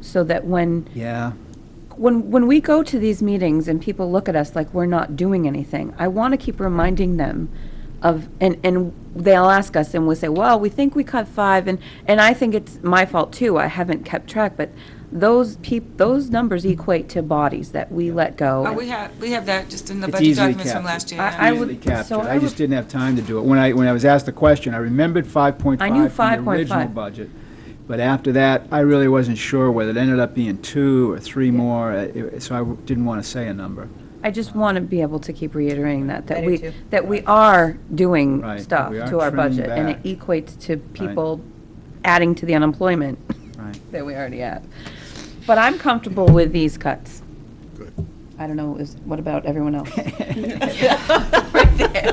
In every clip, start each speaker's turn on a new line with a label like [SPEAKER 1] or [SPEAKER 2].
[SPEAKER 1] so that when,
[SPEAKER 2] Yeah.
[SPEAKER 1] when, when we go to these meetings and people look at us like we're not doing anything, I want to keep reminding them of, and, and they'll ask us and we'll say, well, we think we cut five and, and I think it's my fault too, I haven't kept track, but those peop, those numbers equate to bodies that we let go.
[SPEAKER 3] Oh, we have, we have that just in the
[SPEAKER 2] It's
[SPEAKER 3] budget
[SPEAKER 2] easily
[SPEAKER 3] documents from
[SPEAKER 2] captured.
[SPEAKER 3] last year.
[SPEAKER 1] I-
[SPEAKER 3] yeah.
[SPEAKER 1] I
[SPEAKER 2] Easily
[SPEAKER 1] would- so
[SPEAKER 2] captured.
[SPEAKER 1] I
[SPEAKER 2] I just
[SPEAKER 1] would-
[SPEAKER 2] didn't have time to do it. When I, when I was asked the question, I remembered 5.5
[SPEAKER 1] I knew
[SPEAKER 2] from the
[SPEAKER 1] 5.5.
[SPEAKER 2] original budget. But after that, I really wasn't sure whether it ended up being two or three more, uh, it- so I w- didn't want to say a number.
[SPEAKER 1] I just want to be able to keep reiterating that, that
[SPEAKER 4] I do
[SPEAKER 1] we,
[SPEAKER 4] too.
[SPEAKER 1] that we are doing
[SPEAKER 2] Right,
[SPEAKER 1] stuff
[SPEAKER 2] we are
[SPEAKER 1] to our
[SPEAKER 2] trimming
[SPEAKER 1] budget, and it
[SPEAKER 2] back.
[SPEAKER 1] equates to people adding to the unemployment
[SPEAKER 2] Right.
[SPEAKER 1] that we already have. But I'm comfortable with these cuts.
[SPEAKER 5] Good.
[SPEAKER 1] I don't know, is, what about everyone else?
[SPEAKER 4] Right there.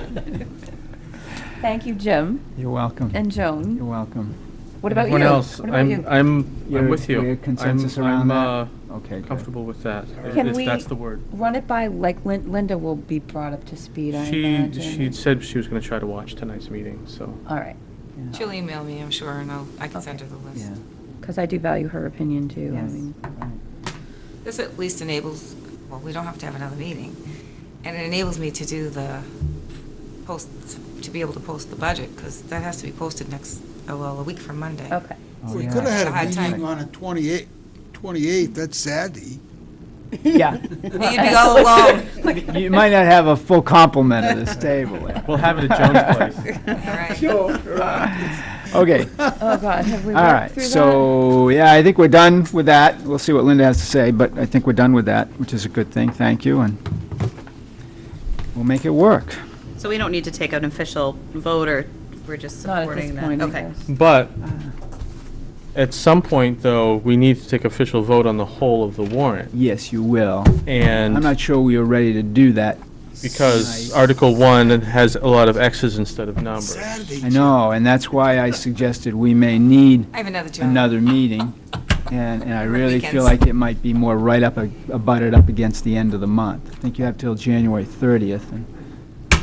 [SPEAKER 1] Thank you, Jim
[SPEAKER 2] You're welcome.
[SPEAKER 1] and
[SPEAKER 2] You're
[SPEAKER 1] Joan.
[SPEAKER 2] welcome.
[SPEAKER 1] What about you?
[SPEAKER 6] Everyone else,
[SPEAKER 1] What about you?
[SPEAKER 6] I'm, I'm,
[SPEAKER 2] You're-
[SPEAKER 6] I'm with you.
[SPEAKER 2] we're
[SPEAKER 6] I'm-
[SPEAKER 2] consensus around that?
[SPEAKER 6] I'm, uh,
[SPEAKER 2] Okay, good.
[SPEAKER 6] comfortable with that, if
[SPEAKER 1] Can
[SPEAKER 6] if
[SPEAKER 1] we-
[SPEAKER 6] that's the word.
[SPEAKER 1] Run it by, like Lin- Linda will be brought up to speed, I
[SPEAKER 6] She,
[SPEAKER 1] imagine.
[SPEAKER 6] she said she was gonna try to watch tonight's meeting, so.
[SPEAKER 1] All right,
[SPEAKER 3] She'll email me, I'm sure, and I'll, I can send her the list.
[SPEAKER 2] Yeah.
[SPEAKER 1] because I do value her opinion, too. I
[SPEAKER 4] Yes.
[SPEAKER 1] mean,
[SPEAKER 3] This at least enables, well, we don't have to have another meeting, and it enables me to do the post, to be able to post the budget, because that has to be posted next, oh, well, a week from Monday.
[SPEAKER 1] Okay.
[SPEAKER 2] Oh,
[SPEAKER 5] We
[SPEAKER 2] yeah.
[SPEAKER 5] could have
[SPEAKER 3] Hard
[SPEAKER 5] had a
[SPEAKER 3] time.
[SPEAKER 5] meeting on a 28, 28, that's Saturday.
[SPEAKER 2] Yeah.
[SPEAKER 3] You'd be all alone,
[SPEAKER 2] You might not have a full complement of this table. there.
[SPEAKER 6] We'll have it at Jones' place.
[SPEAKER 3] all right.
[SPEAKER 2] Okay.
[SPEAKER 1] Oh, God, have we
[SPEAKER 2] All
[SPEAKER 1] worked
[SPEAKER 2] right,
[SPEAKER 1] through that?
[SPEAKER 2] so, yeah, I think we're done with that. We'll see what Linda has to say, but I think we're done with that, which is a good thing, thank you, and we'll make it work.
[SPEAKER 4] So we don't need to take an official vote, or we're just
[SPEAKER 1] Not at
[SPEAKER 4] supporting
[SPEAKER 1] this
[SPEAKER 4] that?
[SPEAKER 1] point, I
[SPEAKER 4] Okay.
[SPEAKER 1] guess.
[SPEAKER 6] But at some point, though, we need to take official vote on the whole of the warrant.
[SPEAKER 2] Yes, you will. I'm
[SPEAKER 6] And
[SPEAKER 2] not sure we are ready to do that.
[SPEAKER 6] because Article 1 has a lot of X's instead of numbers.
[SPEAKER 5] Saturday.
[SPEAKER 2] I know, and that's why I suggested we may need
[SPEAKER 3] I have another job.
[SPEAKER 2] another meeting, and, and I really feel
[SPEAKER 3] Weekends.
[SPEAKER 2] like it might be more right up, a- abutted up against the end of the month. I think you have till January 30th, and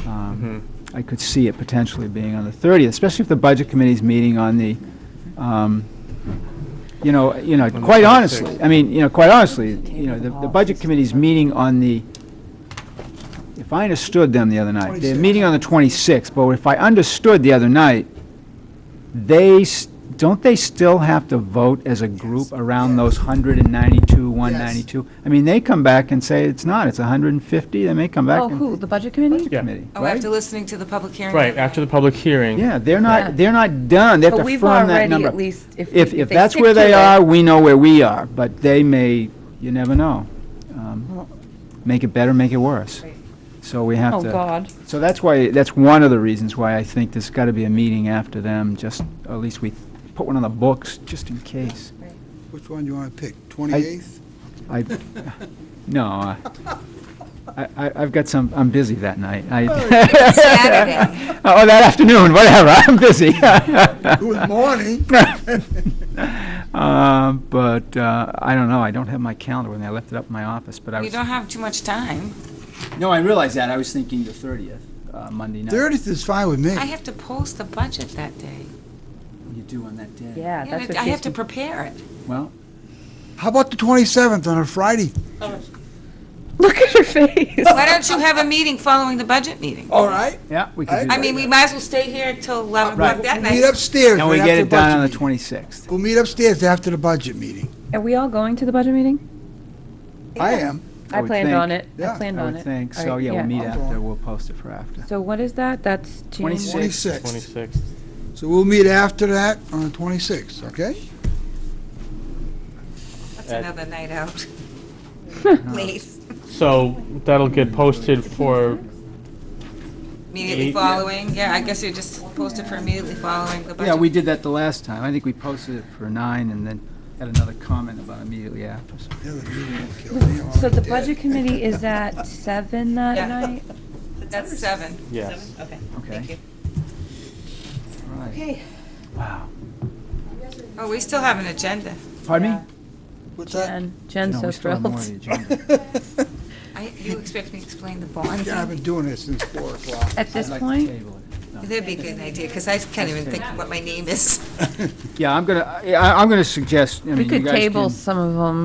[SPEAKER 2] um, I could see it potentially being on the 30th, especially if the Budget Committee's meeting on the, um, you know, you know,
[SPEAKER 6] the
[SPEAKER 2] quite
[SPEAKER 6] 26th.
[SPEAKER 2] honestly, I mean, you know, quite honestly, you know, the the Budget Committee's meeting on the, if I understood them the other night, they're
[SPEAKER 5] 26th.
[SPEAKER 2] meeting on the 26th, but if I understood the other night, they, s- don't they still have to vote as a group around those 192, 192? I mean, they come back and say it's not, it's 150, they may come back
[SPEAKER 1] Oh,
[SPEAKER 2] and...
[SPEAKER 1] who, the budget committee?
[SPEAKER 6] Yeah.
[SPEAKER 2] Committee,
[SPEAKER 3] Oh,
[SPEAKER 2] right?
[SPEAKER 3] after listening to the public hearing.
[SPEAKER 6] Right, after the public hearing.
[SPEAKER 2] Yeah, they're
[SPEAKER 1] Yeah.
[SPEAKER 2] not, they're not done, they have to
[SPEAKER 1] But we've
[SPEAKER 2] firm that
[SPEAKER 1] already
[SPEAKER 2] number.
[SPEAKER 1] at least, if.
[SPEAKER 2] If,
[SPEAKER 1] we-
[SPEAKER 2] if that's
[SPEAKER 1] stick
[SPEAKER 2] where
[SPEAKER 1] to
[SPEAKER 2] they
[SPEAKER 1] it-
[SPEAKER 2] are, we know where we are, but they may, you never know. Um, Make it better, make it worse. So we have
[SPEAKER 1] Oh,
[SPEAKER 2] to...
[SPEAKER 1] God.
[SPEAKER 2] So that's why, that's one of the reasons why I think there's got to be a meeting after them, just, at least we put one on the books, just in case.
[SPEAKER 5] Which one you want to pick, 28th?
[SPEAKER 2] I, no, I, I, I've got some, I'm busy that night. I,
[SPEAKER 3] Saturday.
[SPEAKER 2] oh, that afternoon, whatever, I'm busy.
[SPEAKER 5] Good morning.
[SPEAKER 2] Um, But, uh, I don't know, I don't have my calendar with me, I left it up in my office, but I
[SPEAKER 3] You
[SPEAKER 2] was.
[SPEAKER 3] don't have too much time.
[SPEAKER 2] No, I realize that, I was thinking the thirtieth, uh, Monday night.
[SPEAKER 5] 30th is fine with me.
[SPEAKER 3] I have to post the budget that day.
[SPEAKER 2] You do on that day.
[SPEAKER 1] Yeah,
[SPEAKER 3] Yeah,
[SPEAKER 1] that's
[SPEAKER 3] but
[SPEAKER 1] what
[SPEAKER 3] I have
[SPEAKER 1] she's-
[SPEAKER 3] to prepare it.
[SPEAKER 2] Well,
[SPEAKER 5] How about the 27th on a Friday?
[SPEAKER 1] Look at her face.
[SPEAKER 3] Why don't you have a meeting following the budget meeting?
[SPEAKER 5] All right.
[SPEAKER 2] yeah, we could do
[SPEAKER 3] I
[SPEAKER 2] that.
[SPEAKER 3] mean, we might as well stay here till 11 o'clock
[SPEAKER 2] Right.
[SPEAKER 3] that
[SPEAKER 5] We'll meet
[SPEAKER 3] night.
[SPEAKER 5] upstairs.
[SPEAKER 2] And we
[SPEAKER 5] right
[SPEAKER 2] get
[SPEAKER 5] after
[SPEAKER 2] it done on the
[SPEAKER 5] budget meeting.
[SPEAKER 2] twenty-sixth.
[SPEAKER 5] We'll meet upstairs after the budget meeting.
[SPEAKER 1] Are we all going to the budget meeting?
[SPEAKER 5] I am.
[SPEAKER 2] I
[SPEAKER 1] I
[SPEAKER 2] would
[SPEAKER 1] planned
[SPEAKER 2] think.
[SPEAKER 1] on it. I
[SPEAKER 5] Yeah,
[SPEAKER 1] planned
[SPEAKER 2] I
[SPEAKER 1] on it.
[SPEAKER 2] would think,
[SPEAKER 1] All
[SPEAKER 2] so,
[SPEAKER 1] right,
[SPEAKER 2] yeah, we'll meet
[SPEAKER 5] I'll
[SPEAKER 2] after,
[SPEAKER 5] go.
[SPEAKER 2] we'll post it for after.
[SPEAKER 1] So what is that? That's January.
[SPEAKER 2] 26.
[SPEAKER 5] 26th.
[SPEAKER 6] 26th.
[SPEAKER 5] So we'll meet after that on the 26th, okay?
[SPEAKER 3] That's another night out. Late,
[SPEAKER 6] So that'll get posted for,
[SPEAKER 3] immediately
[SPEAKER 6] Eight.
[SPEAKER 3] following, yeah, I guess you just posted for immediately following the budget.
[SPEAKER 2] Yeah, we did that the last time, I think we posted it for nine and then had another comment about immediately after. so-
[SPEAKER 5] The other meeting will kill me. I'm
[SPEAKER 1] So the
[SPEAKER 5] dead.
[SPEAKER 1] budget committee is at seven that
[SPEAKER 3] Yeah.
[SPEAKER 1] night?
[SPEAKER 3] That's seven.
[SPEAKER 6] yes.
[SPEAKER 4] Okay.
[SPEAKER 2] Okay.
[SPEAKER 4] you.
[SPEAKER 2] All right.
[SPEAKER 4] Okay.
[SPEAKER 2] Wow.
[SPEAKER 3] Oh, we still have an agenda.
[SPEAKER 2] Pardon me?
[SPEAKER 5] What's that?
[SPEAKER 1] And Jen's
[SPEAKER 2] No,
[SPEAKER 1] so
[SPEAKER 2] we still have more on the
[SPEAKER 1] thrilled.
[SPEAKER 2] agenda.
[SPEAKER 3] I, you expect me to explain the bond?
[SPEAKER 5] Yeah, I've been doing this since 4 o'clock.
[SPEAKER 1] At this
[SPEAKER 2] I'd like to
[SPEAKER 1] point,
[SPEAKER 2] table it.
[SPEAKER 3] That'd be a good idea, because I can't even think of what my name is.
[SPEAKER 2] Yeah, I'm gonna, I- I'm gonna suggest, I mean,
[SPEAKER 1] We
[SPEAKER 2] you
[SPEAKER 1] could
[SPEAKER 2] guys
[SPEAKER 1] table
[SPEAKER 2] can-
[SPEAKER 1] some of them